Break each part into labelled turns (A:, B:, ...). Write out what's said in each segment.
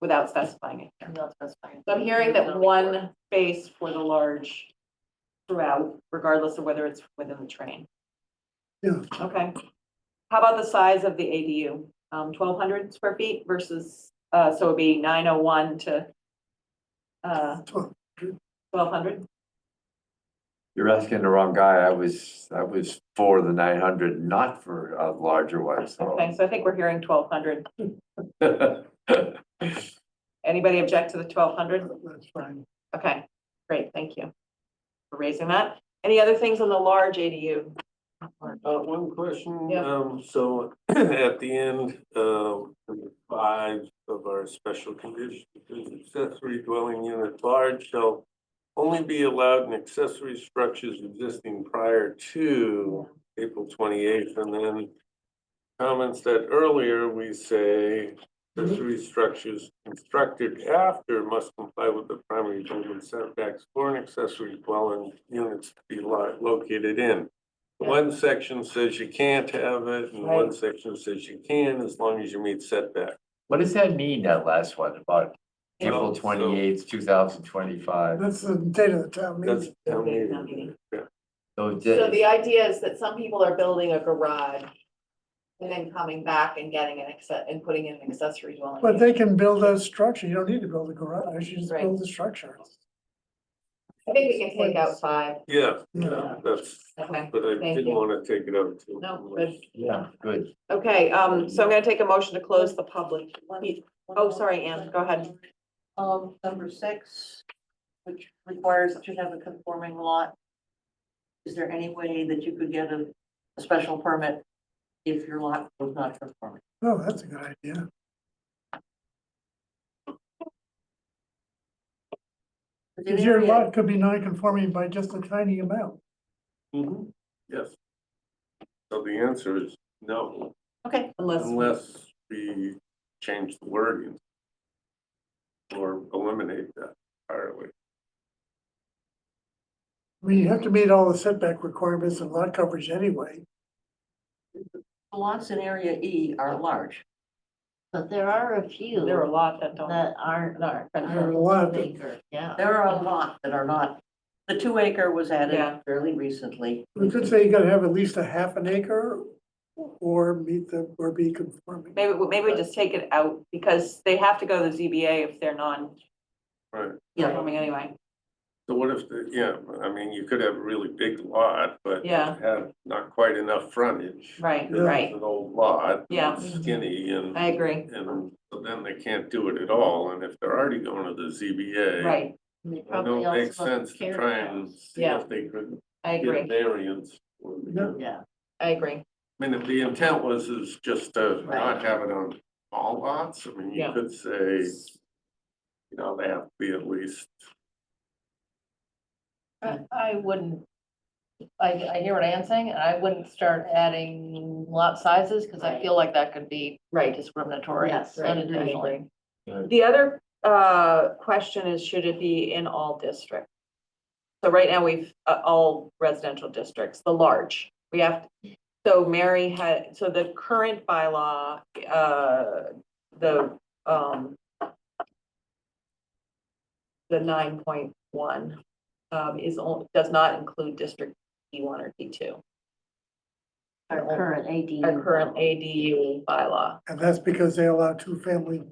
A: without specifying it. here.
B: Not specifying.
A: So I'm hearing that one space for the large throughout, regardless of whether it's within the train.
C: Yeah.
A: Okay. How about the size of the ADU? Um, twelve hundred square feet versus, uh, so it'd be nine oh one to uh,
C: Twelve.
A: twelve hundred?
D: You're asking the wrong guy. I was, I was for the nine hundred, not for a larger one, so.
A: Okay, so I think we're hearing twelve hundred. Anybody object to the twelve hundred?
C: That's fine.
A: Okay, great, thank you for raising that. Any other things on the large ADU?
E: Uh, one question,
A: Yeah.
E: um, so at the end, um, number five of our special condition, is accessory dwelling unit at large shall only be allowed in accessory structures existing prior to April twenty-eighth, and then comments that earlier we say accessory structures constructed after must comply with the primary building setbacks for an accessory dwelling units to be lo- located in.
A: Yeah.
E: One section says you can't have it, and one section says you can, as long as you meet setback.
D: What does that mean, that last one about
E: Well,
D: April
E: so-
D: twenty eighth, two thousand twenty five?
C: That's the date of the town
E: That's.
C: meeting.
E: town meeting.
A: Town meeting.
E: Yeah.
D: So
B: So the
D: did,
B: idea is that some people are building a garage and then coming back and getting an access, and putting in an accessory dwelling.
C: But they can build a structure. You don't need to build a garage. You just
B: Right.
C: build the structure.
B: I think we can take out five.
E: Yeah,
C: Yeah.
E: yeah, that's,
B: Okay.
E: but I
A: Thank
E: didn't
A: you.
E: wanna take it out too.
A: No,
E: much.
A: good.
D: yeah, good.
A: Okay, um, so I'm gonna take a motion to close the public. Oh, sorry, Anne, go ahead.
F: Um, number six, which requires that you have a conforming lot. Is there any way that you could get a, a special permit if your lot was not conforming?
C: Oh, that's a good idea. Because your lot could be non-conforming by just a tiny amount.
E: Mhm. Yes. So the answer is no,
F: Okay,
A: Unless,
E: unless we change the wording. Or eliminate that entirely.
C: I mean, you have to meet all the setback requirements and lot coverage anyway.
F: the lots in area E are large.
G: But there are a few
A: there are a lot that don't.
G: that aren't, aren't.
C: There are a lot that-
G: Bigger, yeah.
F: There are a lot that are not. The two acre was
A: Yeah.
F: added fairly recently.
C: We could say you gotta have at least a half an acre or meet the, or be conforming.
A: Maybe, we- maybe we just take it out because they have to go to the ZBA if they're non-conforming
E: Right,
F: Yeah,
A: anyway.
E: so what if, the yeah, I mean, you could have a really big lot, but
A: Yeah.
E: have not quite enough frontage.
A: Right,
E: Because
A: right.
E: It's an old lot.
A: Yeah.
E: it's Skinny and,
A: I agree.
E: and so then they can't do it at all, and if they're already going to the ZBA.
A: Right,
G: And they
E: I
G: probably
E: know it makes
G: also have
E: sense to
G: carrot
E: try
G: house.
E: and see
A: Yeah.
E: if they could
A: I
E: get a
A: agree.
E: variance. for the-
C: Yeah.
G: Yeah,
A: I agree.
E: I mean, if the intent was is just to not have it on all lots, I mean, you
A: Yeah.
E: could say, you know, they have to be at least,
B: I, I wouldn't, I, I hear what Anne's saying, and I wouldn't start adding lot sizes, because I feel like that could be
A: Right.
B: discriminatory
G: Yes, right, I agree.
B: unintentionally.
A: The other uh question is, should it be in all districts? So right now, we've uh, all residential districts, the large, we have, so Mary had, so the current bylaw, uh, the um. The nine point one um is on, does not include district D one or D two,
G: our current AD.
A: our current ADU bylaw.
C: And that's because they allow two-family,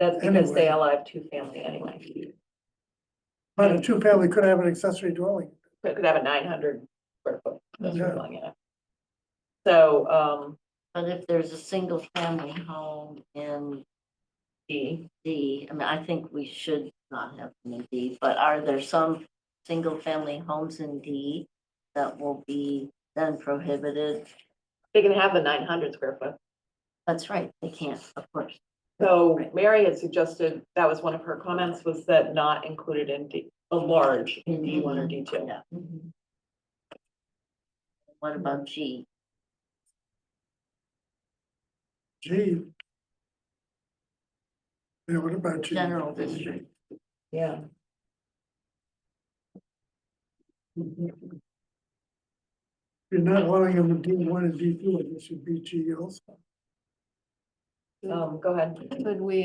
A: That's because they
C: Anyway.
A: allow two family anyway,
C: but a two-family could have an accessory dwelling.
A: It could have a nine hundred square foot. accessory
C: Yeah.
A: dwelling unit. So, um,
G: But if there's a single family home in
A: D,
G: D, I mean, I think we should not have them in D, but are there some single family homes in D that will be then prohibited?
A: they can have the nine hundred square foot.
G: That's right, they can't, of course.
A: So Mary had suggested, that was one of her comments, was that not included in D, a large in D one or D two.
G: Yeah. mhm. What about G?
C: Gee. Yeah, what about you?
G: General district.
A: Yeah.
C: You're not allowing them to do one and D two, I guess you'd be G also.
A: Um, go ahead.
B: Could we